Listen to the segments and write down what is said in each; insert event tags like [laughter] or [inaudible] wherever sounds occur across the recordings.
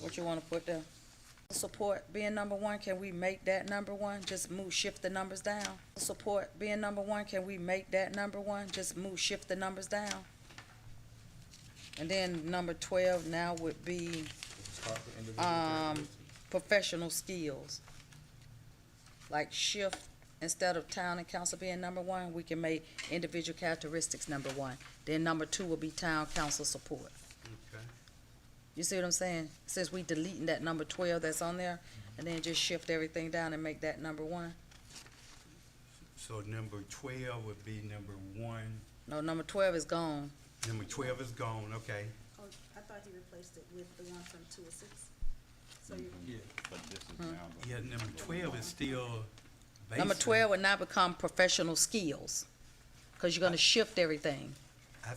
what you wanna put there? Support being number one, can we make that number one? Just move, shift the numbers down. Support being number one, can we make that number one? Just move, shift the numbers down. And then number twelve now would be Start with individual Um, characteristics. professional skills. Like shift, instead of town and council being number one, we can make individual characteristics number one. Then number two will be town council support. Okay. You see what I'm saying? Since we deleting that number twelve that's on there, and then just shift everything down and make that number one. So number twelve would be number one, No, number twelve is gone. number twelve is gone, okay. Oh, I thought he replaced it with the one from two or six. So you, But this is now. the- Yeah, number twelve is still basic. Number twelve would now become professional skills, cause you're gonna shift everything. I- Cause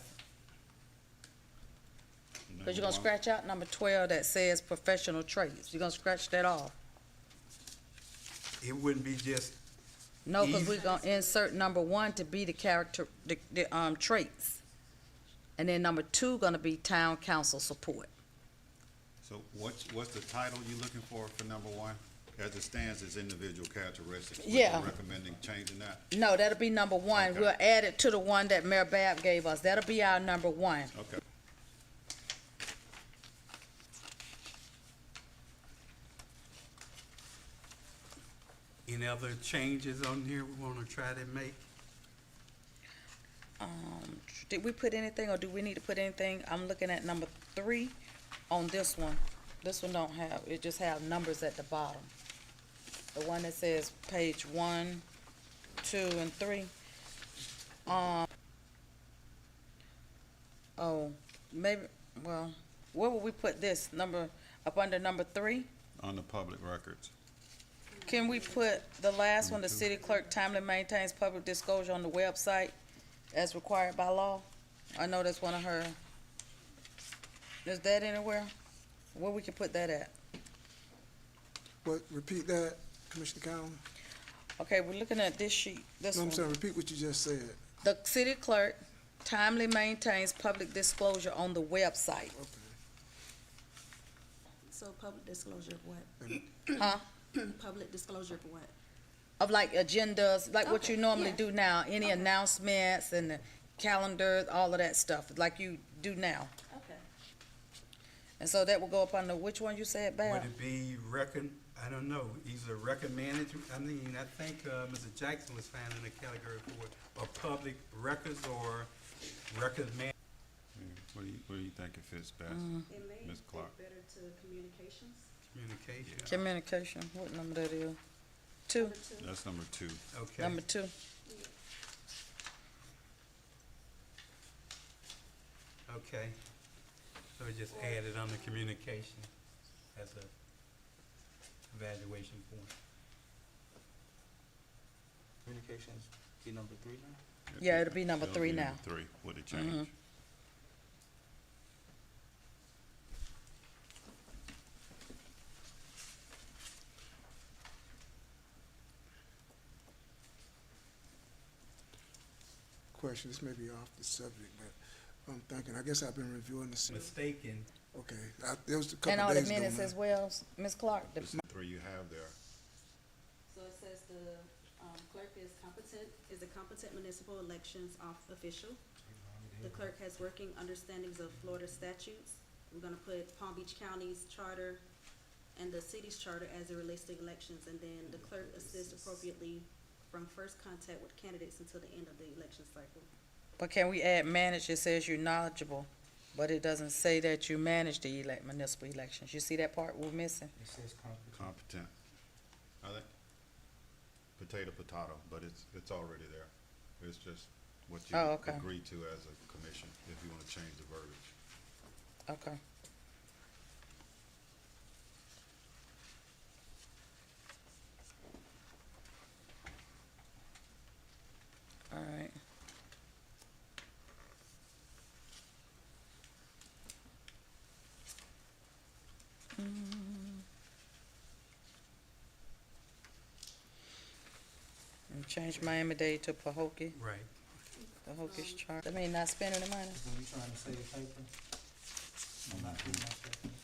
you're gonna Number one. scratch out number twelve that says professional traits. You're gonna scratch that off. It wouldn't be just, No, because Easy. we're gonna insert number one to be the character, the, the, um, traits. And then number two gonna be town council support. So what's, what's the title you looking for for number one? As it stands, it's individual characteristics. What you Yeah. Recommending changing that? No, that'll be number one. Okay. We'll add it to the one that Mayor Bab gave us. That'll be our number one. Okay. any other changes on here we wanna try to make? Um, did we put anything, or do we need to put anything? I'm looking at number three on this one. This one don't have, it just have numbers at the bottom. The one that says page one, two, and three. Um, oh, maybe, well, where would we put this? Number, up under number three? On the public records. Can we put the last one, the city clerk timely maintains public disclosure on the website as required by law? I know that's one of her. Is that anywhere? Where we can put that at? What, repeat that, Commissioner Cowan? Okay, we're looking at this sheet, this No, one. I'm sorry, repeat what you just said. The city clerk timely maintains public disclosure on the website. Okay. so public disclosure of what? Huh? [clears throat] Public disclosure of what? of like agendas, like what Okay, you normally yeah. do now, any Okay. announcements and the calendars, all of that stuff, like you do now. Okay. And so that will go up under, which one you said, Bab? Would it be recon, I don't know, either recommended, I mean, I think, uh, Mr. Jackson was finding a category for, or public records or recommend. What do you, what do you think it fits best? Mm-hmm. It may Ms. fit Clark. better to communications. Communication, Communication, what number that is? Two, Number two. That's number two. okay. number two. Okay, so we just add it on the communication as a evaluation point. Communications be number three now? Yeah, it'll be number It'll three be now. Mm-hmm. number Three, with a change. Question, this may be off the subject, but I'm thinking, I guess I've been reviewing this, Mistaken, okay, I, there was a couple And all the days ago. minutes man. as well, Ms. Clark, the- It's three you have there. So it says the um, clerk is competent, is a competent municipal elections off official. The clerk has working understandings of Florida statutes. We're gonna put Palm Beach County's charter and the city's charter as it relates to elections. And then the clerk assists appropriately from first contact with candidates until the end of the election cycle. but can we add manage, it says you're knowledgeable, but it doesn't say that you manage the elect, municipal elections, you see that part we're missing? It says competent. Competent. I think potato, potato, but it's, it's already there. It's just what you Oh, okay. agree to as a commission, if you wanna change the verbiage. Okay. All right. Mm. And change Miami-Dade to Pahokee, right. Pahokie's chart. That mean not spending the money. When you trying to save paper? I'm not putting myself in.